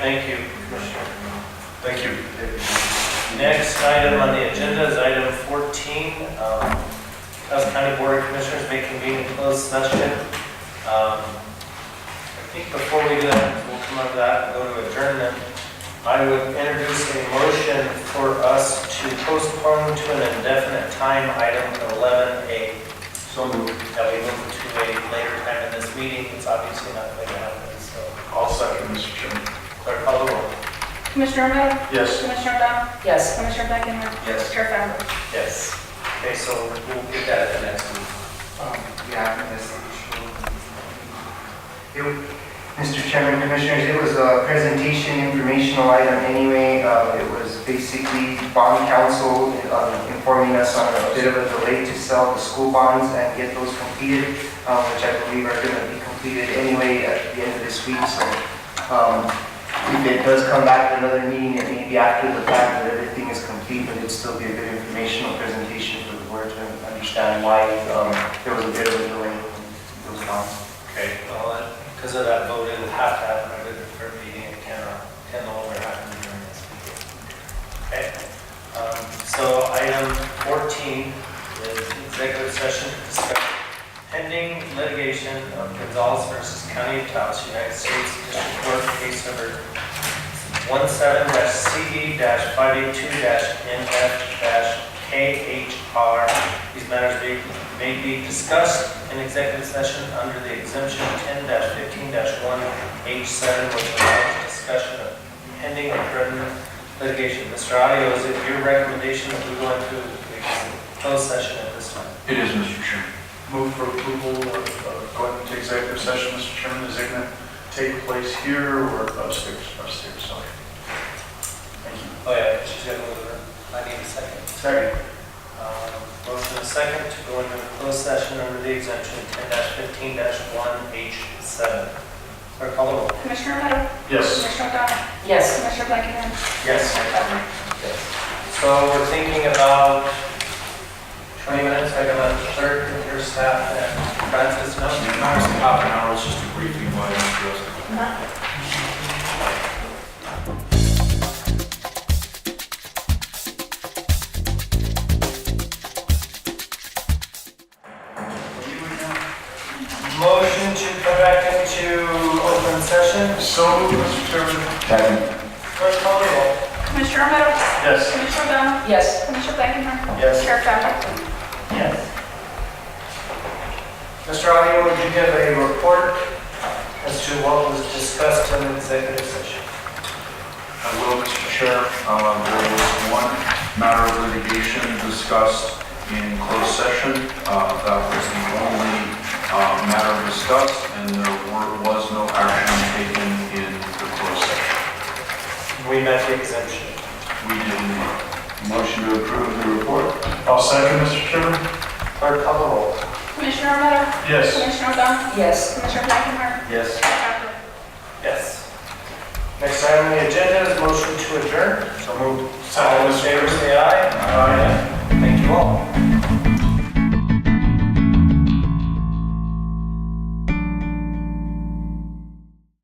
Thank you, Commissioner. Thank you. Next item on the agenda is item 14. um, Taos County Board of Commissioners may convene in closed session. Um, I think before we do that, we'll come up to that and go to adjournment. I would introduce a motion for us to postpone to an indefinite time item 11A. So moved. That we move to a later time in this meeting. It's obviously not going to happen, so. I'll second, Mr. Chairman. Clerk, call the roll. Commissioner Romero? Yes. Commissioner Dunn? Yes. Commissioner Blackenham? Yes. Chair Fambro? Yes. Okay, so we'll get that at the next meeting. Um, Yeah, I think that's the issue. It- Mr. Chairman, Commissioners, it was a presentation informational item anyway. Uh, It was basically bond council um, informing us on a bit of a delay to sell the school bonds and get those completed, um, which I believe are going to be completed anyway at the end of this week. So um, if it does come back to another meeting, it may be after the fact that everything is complete, but it'd still be a good informational presentation for the board to understand why um, there was a bit of a delay in those bonds. Okay, well, because of that vote, it would have to happen at the third meeting, it cannot, can no longer happen during this meeting. Okay, um, so item fourteen is executive session to discuss pending litigation of Gonzalez versus County of Taos, United States District Court case number one CD E five eight two NF KHR. These matters may, may be discussed in executive session under the exemption ten fifteen one H seven, which allows discussion of pending or threatened litigation. Mr. Audio, is it your recommendation that we go into a closed session at this time? It is, Mr. Chairman. Move for approval of uh, going into executive session, Mr. Chairman. Is it going to take place here or upstairs? Upstairs, sorry. Thank you. Oh, yeah, she's gonna move it. I need a second. Second. Um, Motion and second to go into closed session under the exemption ten fifteen one H seven. Clerk, call the roll. Commissioner Romero? Yes. Commissioner Dunn? Yes. Commissioner Blackenham? Yes. Chair Fambro? So we're thinking about 20 minutes, I got a clerk and your staff and Francis Mountain. half an hour, it's just a briefing by Motion to come back into open session. So, Mr. Chairman. Clerk, call the roll. Commissioner Romero? Yes. Commissioner Dunn? Yes. Commissioner Blackenham? Yes. Chair Fambro? Mr. Audio, would you give a report as to what was discussed in the executive session? I will, Mr. Chair. Uh, There was one matter of litigation discussed in closed session. Uh, That was the only uh, matter discussed, and there were- was no action taken in the closed session. We met the exemption. We didn't, Motion to approve the report. I'll second, Mr. Chairman. Clerk, call the roll. Commissioner Romero? Yes. Commissioner Dunn? Yes. Commissioner Blackenham? Yes. Chair Fambro? Yes. Next item on the agenda is motion to adjourn. So moved. All in favor, say aye. Aye. Thank you all.